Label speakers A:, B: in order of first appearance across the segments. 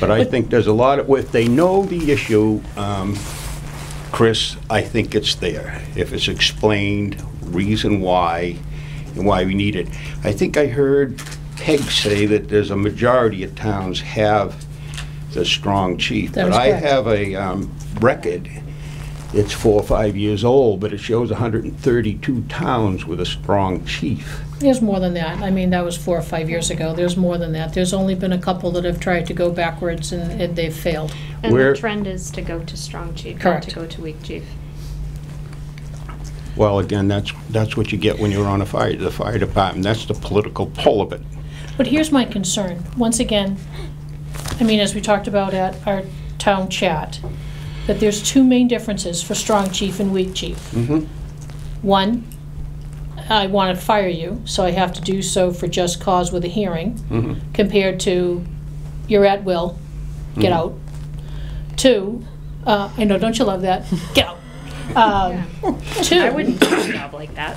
A: But I think there's a lot of, if they know the issue, um, Chris, I think it's there. If it's explained, reason why, and why we need it. I think I heard Peg say that there's a majority of towns have the strong chief.
B: That is correct.
A: But I have a um, record, it's four or five years old, but it shows 132 towns with a strong chief.
B: There's more than that. I mean, that was four or five years ago. There's more than that. There's only been a couple that have tried to go backwards and, and they've failed.
C: And
A: Where-
C: the trend is to go to strong chief, not
B: Correct.
C: to go to weak chief.
A: Well, again, that's, that's what you get when you're on a fire, the fire department, that's the political pull of it.
B: But here's my concern. Once again, I mean, as we talked about at our town chat, that there's two main differences for strong chief and weak chief. One, I want to fire you, so I have to do so for just cause with a hearing, compared to you're at will,
A: Mm.
B: get out. Two, uh, I know, don't you love that? Get out. Um, Two.
C: I wouldn't take a job like that.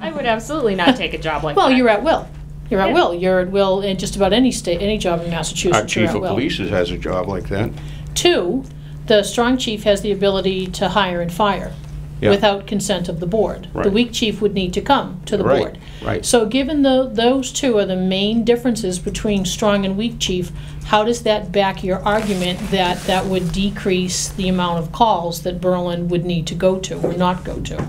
C: I would absolutely not take a job like that.
B: Well, you're at will. You're at
C: Yeah.
B: will. You're at will in just about any state, any job in
A: Our
B: Massachusetts. You're
A: chief
B: at
A: of
B: will.
A: police has a job like that.
B: Two, the strong chief has the ability to hire and fire
A: Yeah.
B: without consent of the board. The
A: Right.
B: weak chief would need to come to the
A: Right,
B: board.
A: right.
B: So given tho- those two are the main differences between strong and weak chief, how does that back your argument that that would decrease the amount of calls that Berlin would need to go to or not go to?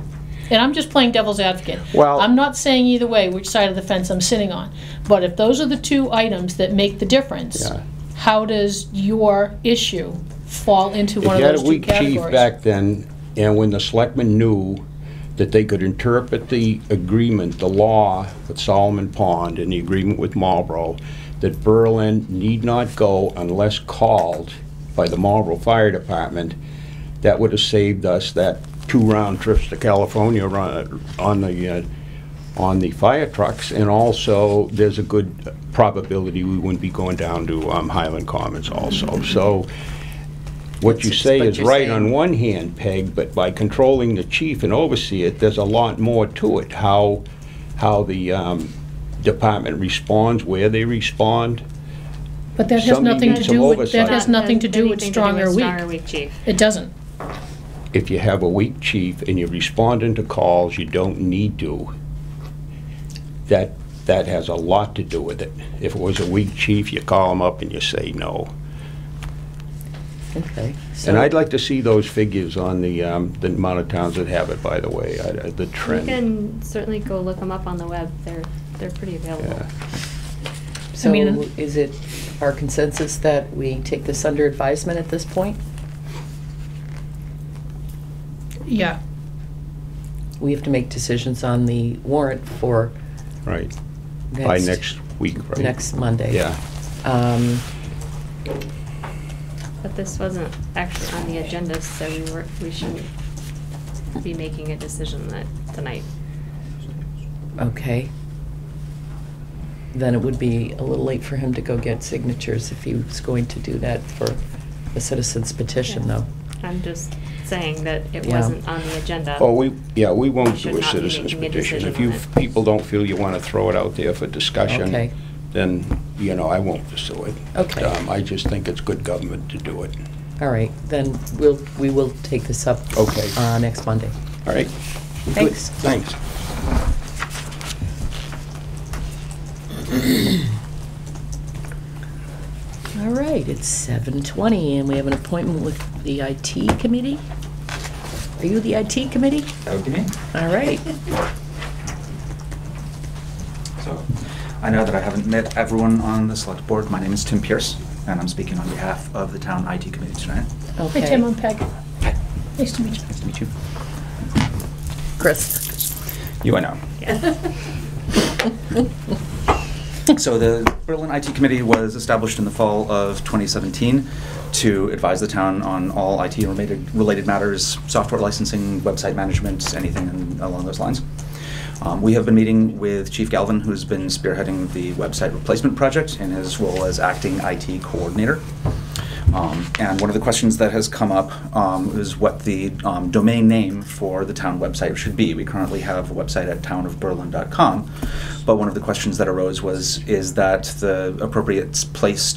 B: And I'm just playing devil's advocate.
A: Well-
B: I'm not saying either way which side of the fence I'm sitting on. But if those are the two items that make the difference,
A: Yeah.
B: how does your issue fall into
A: If
B: one
A: you
B: of
A: had a
B: those two
A: weak chief
B: categories?
A: back then, and when the selectmen knew that they could interpret the agreement, the law with Solomon Pond and the agreement with Marlboro, that Berlin need not go unless called by the Marlboro Fire Department, that would have saved us that two round trips to California on, on the, uh, on the fire trucks. And also, there's a good probability we wouldn't be going down to um, Highland Commons also. So what you say
D: But
A: is
D: you're
A: right
D: saying-
A: on one hand, Peg, but by controlling the chief and oversee it, there's a lot more to it. How, how the um, department responds, where they respond.
B: But that has
A: somebody
B: nothing to
A: needs some
B: do with, that
A: oversight.
B: has
C: Not
B: nothing to do with
C: anything
B: strong or
C: Strong or
B: weak.
C: weak chief.
B: It doesn't.
A: If you have a weak chief and you're responding to calls you don't need to, that, that has a lot to do with it. If it was a weak chief, you call him up and you say no.
D: Okay.
A: And
D: so-
A: I'd like to see those figures on the, um, the amount of towns that have it, by the way, I- I- the
C: You
A: trend.
C: can certainly go look them up on the web. They're, they're pretty available.
A: Yeah.
B: I
D: So
B: mean-
D: is it our consensus that we take this under advisement at this point?
B: Yeah.
D: We have to make decisions on the warrant for
A: Right,
D: next.
A: by next week, right?
D: Next Monday.
A: Yeah.
D: Um,
C: But this wasn't actually on the agenda, so we were, we shouldn't be making a decision that, tonight.
D: Okay. Then it would be a little late for him to go get signatures if he was going to do that for the citizens petition, though.
C: I'm just saying that it
D: Yeah.
C: wasn't on the agenda.
A: Oh, we, yeah, we won't
C: Should
A: do a
C: not be
A: citizens
C: making a
A: petition. If
C: decision
A: you
C: on it.
A: people don't feel you want to throw it out there for discussion,
D: Okay.
A: then, you know, I won't pursue it.
D: Okay.
A: Um, I just think it's good government to do it.
D: All right, then we'll, we will take this up.
A: Okay.
D: Uh, next Monday.
A: All right? Good.
D: Thanks.
A: Thanks.
D: All right, it's seven twenty, and we have an appointment with the IT committee. Are you the IT committee?
E: That would be me.
D: All right.
E: So, I know that I haven't met everyone on the select board. My name is Tim Pierce, and I'm speaking on behalf of the town IT committee tonight.
B: Hi,
D: Okay.
B: Tim, I'm Peg. Nice to meet you.
E: Nice to meet you.
D: Chris.
E: You, I know. So the Berlin IT Committee was established in the fall of 2017 to advise the town on all IT-related related matters, software licensing, website management, anything in- along those lines. Um, We have been meeting with Chief Galvin, who's been spearheading the website replacement project in his role as acting IT coordinator. Um, And one of the questions that has come up um, is what the um, domain name for the town website should be. We currently have a website at townofberlin.com, but one of the questions that arose was, is that the appropriate place